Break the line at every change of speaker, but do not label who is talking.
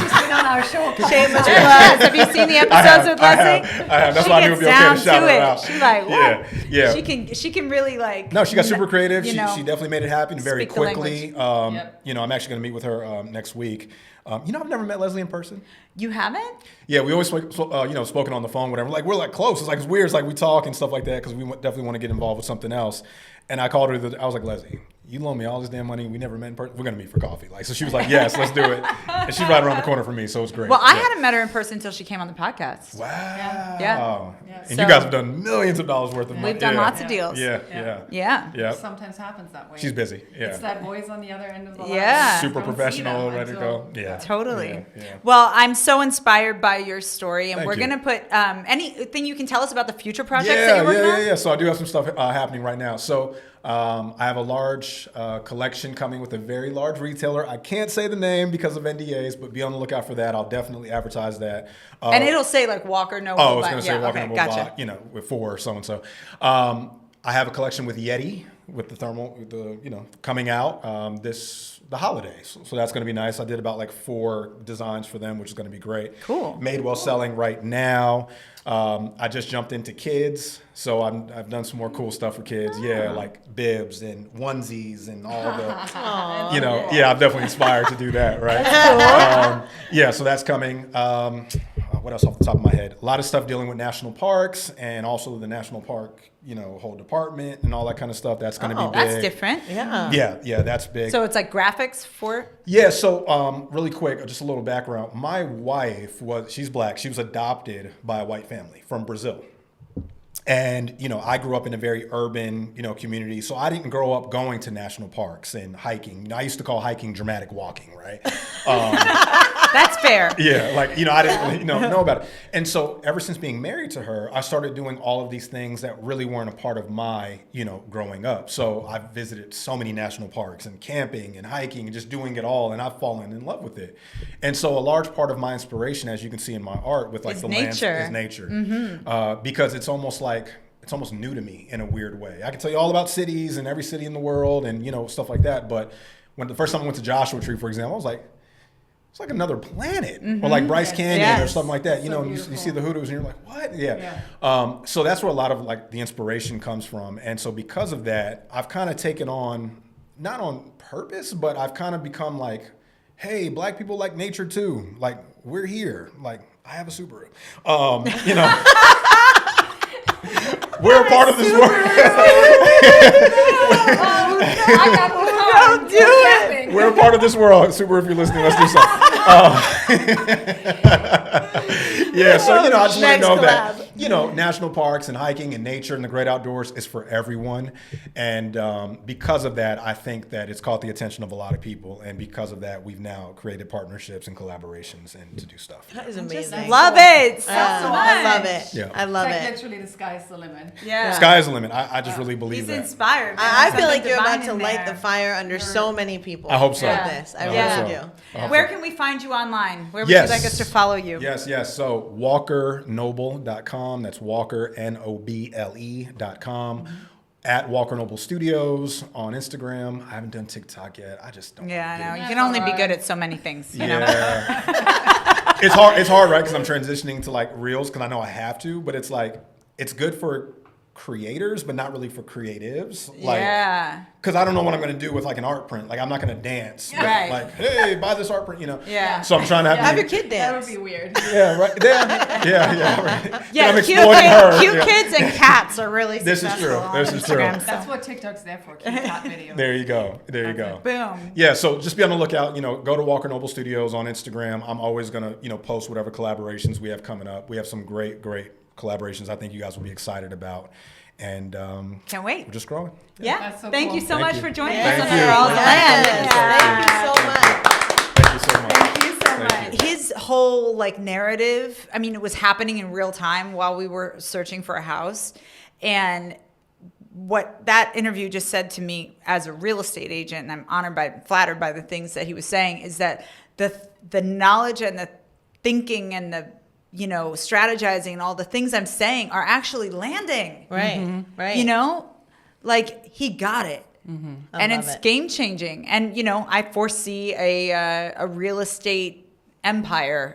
now. She'll come
Shame
out.
with Les. Have you seen the
I have,
episodes with
I
Leslie?
have, I have. That's
She
why I knew
gets
it would be okay to
down
shout her
it.
out.
She like, whoa.
Yeah, yeah.
She can she can really like
No, she got
n-
super creative.
you
She,
know.
she definitely made it happen very
Speak the language.
quickly. Um,
Yep.
You know, I'm actually going to meet with her um, next week. Um, you know, I've never met Leslie in person.
You haven't?
Yeah, we always spoke- so- uh, you know spoken on the phone, whatever. Like we're like close. It's like it's weird. It's like we talk and stuff like that because we wa- definitely want to get involved with something else. And I called her. The, I was like, Leslie, you loan me all this damn money. We never met in person. We're gonna meet for coffee. Like so, she was like, Yes, let's do it. And she's right around the corner from me, so it's great.
Well, I
Yeah.
hadn't met her in person until she came on the podcast.
Wow.
Yeah.
And
So-
you guys have done millions of dollars worth of money.
We've done
Yeah.
lots of
Yeah.
deals.
Yeah,
Yeah.
yeah,
Yeah.
yeah.
Sometimes happens that way.
She's busy. Yeah.
It's that voice on the other end of the line.
Yeah.
You
super
don't see
professional,
them
ready to
until-
go. Yeah,
Totally.
Yeah, yeah.
Well, I'm so inspired by your story, and
Thank
we're
you.
gonna put um, anything you can tell us about the future projects that
Yeah,
you're working
yeah, yeah,
on.
yeah. So I do have some stuff uh, happening right now. So um, I have a large uh, collection coming with a very large retailer. I can't say the name because of NDAs, but be on the lookout for that. I'll definitely advertise that. Uh,
And it'll say like Walker No.
oh, I was
Robot.
going to say
yeah,
walking
okay,
on a
gotcha.
robot, you know, with four or so and so. Um, I have a collection with Yeti with the thermal, with the you know, coming out um, this the holidays. So, that's going to be nice. I did about like four designs for them, which is going to be great.
Cool.
Madewell selling right now. Um, I just jumped into kids, so I'm, I've done some more cool stuff for kids.
Ah.
Yeah, like bibs and onesies and all the you know,
Oh.
yeah, I'm definitely inspired to do that, right? Um, yeah, so that's coming. Um, uh, what else off the top of my head? A lot of stuff dealing with national parks and also the national park, you know, whole department and all that kind of stuff. That's going to
Oh,
be big.
that's different.
Yeah.
Yeah, yeah, that's big.
So it's like graphics for
Yeah, so um, really quick, just a little background. My wife was, she's black. She was adopted by a white family from Brazil. And, you know, I grew up in a very urban, you know, community. So I didn't grow up going to national parks and hiking. You know, I used to call hiking dramatic walking, right?
that's fair.
yeah, like, you know, I didn't really, you know, know about it. And so ever since being married to her, I started doing all of these things that really weren't a part of my, you know, growing up. So I've visited so many national parks and camping and hiking and just doing it all. And I've fallen in love with it. And so a large part of my inspiration, as you can see in my art with like
Is
the lands-
nature. Mm-hmm.
is nature. Uh, because it's almost like, it's almost new to me in a weird way. I can tell you all about cities and every city in the world and, you know, stuff like that. But when the first time I went to Joshua Tree, for example, I was like, it's like another planet or like Bryce Canyon or
Yes.
something like that. You
So
know, and you, you
beautiful.
see the hoodoos and you're like, what? Yeah. Um, so that's where a lot of like the inspiration comes from. And so because of that, I've kind of taken on, not on purpose, but I've kind of become like, hey, black people like nature too. Like we're here. Like I have a Subaru. Um, you know. We're a part of this world.
I got the
Don't do it.
phone.
We're a part of this world. Super, if you're listening, let's do something. Um, yeah, so you know, I just want to
Next
know
collab.
that you know, national parks and hiking and nature and the great outdoors is for everyone, and um, because of that, I think that it's caught the attention of a lot of people, and because of that, we've now created partnerships and collaborations and to do stuff.
That is amazing.
Love it.
Oh,
So
Uh,
I love it.
Yeah.
I love
Like
it.
literally, the sky's the limit.
Yeah.
Sky's the limit. I, I just really believe
He's
that.
inspired.
I, I
There's
feel like
something
you're about
divine
to
in
light the
there.
fire under so many people.
I hope so.
with
Yeah.
This. I
Yeah.
really
so.
do.
I hope
Where
so.
can we find you online? Where would
Yes.
you like us to follow you?
Yes, yes. So walkernoble.com. That's walker, N O B L E.com.
Mm-hmm.
At Walker Noble Studios on Instagram. I haven't done TikTok yet. I just don't.
Yeah, I
get
know.
it.
You
Yeah,
can only be
alright.
good at so many things. You know?
Yeah. it's hard. It's hard, right? Because I'm transitioning to like reels because I know I have to, but it's like, it's good for creators, but not really for creatives. Like,
yeah.
Because I don't know what I'm going to do with like an art print. Like, I'm not going to dance. with,
Right.
Like, hey, buy this art print, you know?
Yeah.
So I'm trying to have,
Have
the-
your kid
That would
dance.
be weird.
Yeah, right. Yeah, yeah, yeah. Right.
Yeah,
I'm
cute,
exploiting
kid,
her.
cute
Yeah.
kids and cats are really
This is
successful
true.
on
This is true.
Instagram, so-
That's what TikTok's there for. Cute cat videos.
There you go. There you go.
Boom.
Yeah, so just be on the lookout. You know, go to Walker Noble Studios on Instagram. I'm always gonna, you know, post whatever collaborations we have coming up. We have some great, great collaborations. I think you guys will be excited about, and um,
Can't wait.
we're just growing.
Yeah.
That's so
Thank
cool.
you so
Thank
much
you.
for joining
Thank
us
you.
on Girls
Thank
Land.
Yes. Thank you
Thank you
so much.
so much.
Thank you so
Thank
much. His whole like narrative, I mean, it was happening in real time while we were searching for a house. And what that interview just said to me as a real estate agent, and I'm honored by flattered by the things that he was saying, is that the the knowledge and the thinking and the you know strategizing and all the things I'm saying are actually landing.
Right. Right.
Mm-hmm. You know, like he got it. Mm-hmm. And
love
it's
it.
game changing. And, you know, I foresee a, uh, a real estate empire